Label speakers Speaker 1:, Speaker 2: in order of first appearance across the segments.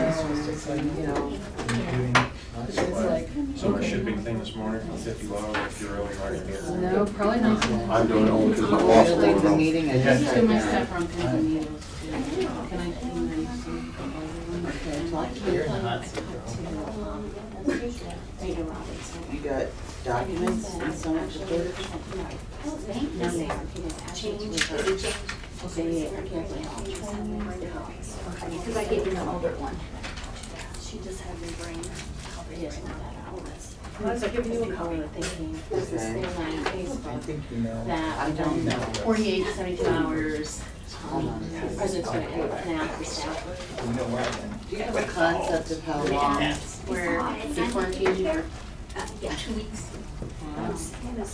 Speaker 1: trucks and, you know, it's like,
Speaker 2: So my shipping thing this morning from fifty low, if you're really hard to get.
Speaker 1: no, probably not.
Speaker 3: I'm doing it only because my boss
Speaker 1: Really,
Speaker 3: won't
Speaker 1: the
Speaker 3: know.
Speaker 1: meeting, I
Speaker 2: Yeah.
Speaker 1: just.
Speaker 4: Two of my stuff from pins and needles too. Can I clean those? some of the other ones? Ada Robertson.
Speaker 1: You got documents and some at the church?
Speaker 4: No, they are. Change, They are carefully all just have their own dogs.
Speaker 5: Because I gave him the older one.
Speaker 4: She just had me bring, I'll bring that out.
Speaker 5: I was like, giving you a
Speaker 4: Color thinking, this is
Speaker 1: Okay.
Speaker 4: their line
Speaker 6: I
Speaker 4: Facebook.
Speaker 6: think you know.
Speaker 4: that
Speaker 1: I don't
Speaker 4: within
Speaker 1: know.
Speaker 4: Forty-eight, seventy-two hours,
Speaker 1: Hold
Speaker 4: um,
Speaker 1: on.
Speaker 4: the president's gonna have an after staff.
Speaker 6: You know what, then?
Speaker 1: Do you have a concept of how long?
Speaker 4: Where the quarantine, where,
Speaker 5: Uh, Yeah, two weeks.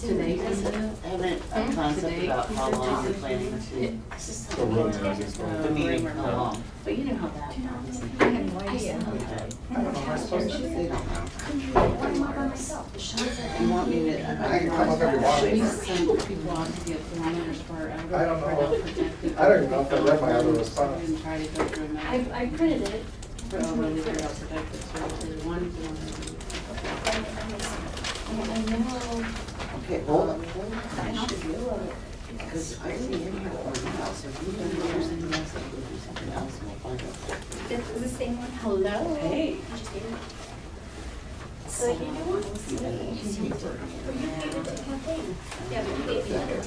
Speaker 4: today, is it?
Speaker 1: Haven't a concept about how long you're planning to,
Speaker 4: It's just
Speaker 3: The room
Speaker 4: something.
Speaker 3: has its own-
Speaker 1: the meeting, how long?
Speaker 4: But you know how that goes.
Speaker 5: I had no idea.
Speaker 1: Okay.
Speaker 6: I don't know, am I supposed to?
Speaker 1: They don't know.
Speaker 4: The shots are
Speaker 1: You want me to,
Speaker 6: I
Speaker 1: I
Speaker 6: can come up every
Speaker 4: We
Speaker 6: morning.
Speaker 4: send people out to get thermometers for our.
Speaker 6: I don't know.
Speaker 4: for our protective-
Speaker 6: I don't even know if I read my other response.
Speaker 4: And try to go through them.
Speaker 5: I, I printed it.
Speaker 4: For our protective services, one thermometer.
Speaker 5: And I know,
Speaker 1: okay, hold on. I should realize, because I see in here one house, if you've done yours and you have something, do something else, and we'll find out.
Speaker 5: this is the same one.
Speaker 4: Hello?
Speaker 1: Hey.
Speaker 5: I just gave it. So you know what?
Speaker 1: You didn't keep it.
Speaker 5: Well, you gave it to Kathleen. Yeah, but you gave me another.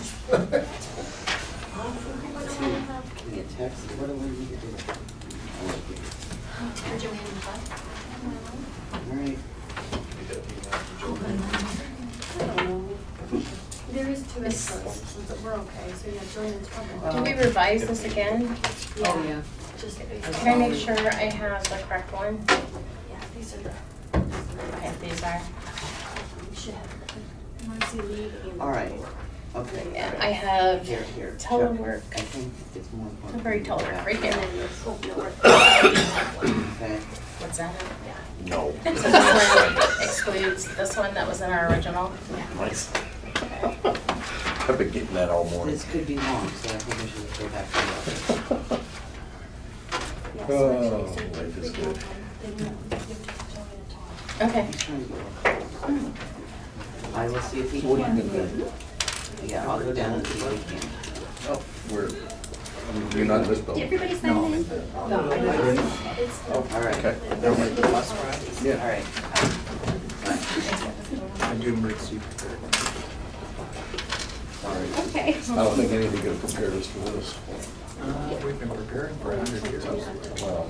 Speaker 1: Give me a text, what do we need to do?
Speaker 5: For Joanne and Bud.
Speaker 1: All right.
Speaker 5: There is two instances, but we're okay, so yeah, Joanne's
Speaker 7: Do
Speaker 5: probably.
Speaker 7: we revise this again?
Speaker 5: Oh, Yeah,
Speaker 4: Oh, Yeah.
Speaker 5: Just,
Speaker 7: Can I make sure I have the correct one?
Speaker 5: yeah, these are, um,
Speaker 7: Okay, these are.
Speaker 5: we should have. Marcy Lee and.
Speaker 1: All right, okay.
Speaker 7: Yeah, I have
Speaker 1: Here, here. check.
Speaker 7: telework,
Speaker 1: I think it's more important.
Speaker 7: temporary telework, right
Speaker 5: And
Speaker 7: here.
Speaker 5: then this whole network.
Speaker 1: Okay.
Speaker 7: What's that?
Speaker 3: No.
Speaker 7: So this one excludes this one that was in our original.
Speaker 3: Nice. I've been getting that all morning.
Speaker 1: This could be long, so I think we should go back to that.
Speaker 5: Yeah, so
Speaker 3: Oh,
Speaker 5: actually, so
Speaker 3: life is
Speaker 5: we
Speaker 3: good.
Speaker 5: can, um, then we'll give it to Joanne and Todd.
Speaker 7: Okay.
Speaker 1: He's trying to get one. I will see if he
Speaker 3: What do you
Speaker 1: can.
Speaker 3: think then?
Speaker 1: Yeah, I'll go down and see if he can.
Speaker 3: Oh, we're, you're not in this building.
Speaker 5: Everybody sign in? It's the.
Speaker 1: All right,
Speaker 3: Oh, Okay.
Speaker 1: all
Speaker 3: Yeah.
Speaker 1: right.
Speaker 6: I do emergency preparedness.
Speaker 3: Sorry.
Speaker 5: Okay.
Speaker 3: I don't think anything could have prepared us for this.
Speaker 6: Uh, We've been preparing for a hundred years.
Speaker 3: Wow.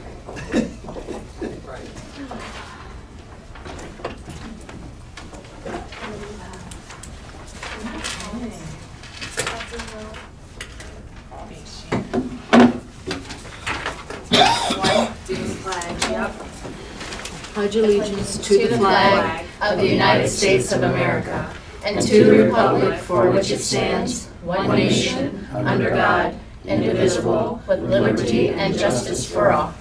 Speaker 4: Pledge allegiance to the flag
Speaker 7: Of the United States of America and to the republic for which it stands, one nation, under God, indivisible, with liberty and justice for all.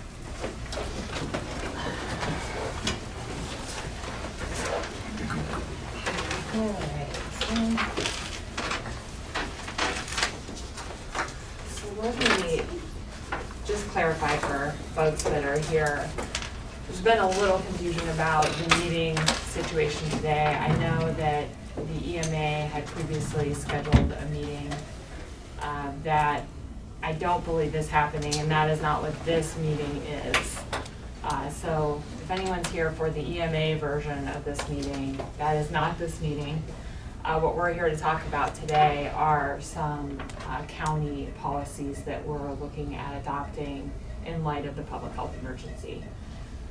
Speaker 7: Hmm.
Speaker 8: So let me just clarify for folks that are here. There's been a little confusion about the meeting situation today. I know that the EMA had previously scheduled a meeting uh, that I don't believe is happening, and that is not what this meeting is. Uh, So if anyone's here for the EMA version of this meeting, that is not this meeting. Uh, What we're here to talk about today are some uh, county policies that we're looking at adopting in light of the public health emergency.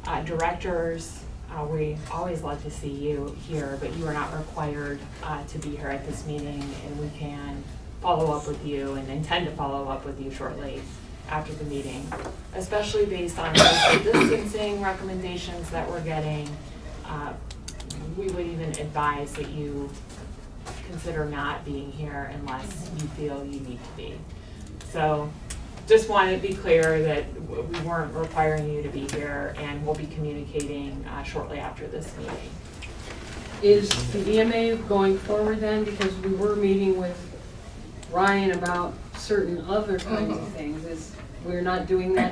Speaker 8: Uh, Directors, uh, we always love to see you here, but you are not required uh, to be here at this meeting, and we can follow up with you and intend to follow up with you shortly after the meeting, especially based on social distancing recommendations that we're getting. Uh, We would even advise that you consider not being here unless you feel you need to be. So just wanted to be clear that w- we weren't requiring you to be here and we'll be communicating uh, shortly after this meeting.
Speaker 9: Is the EMA going forward then, because we were meeting with Ryan about certain other kinds of things, is we're not doing that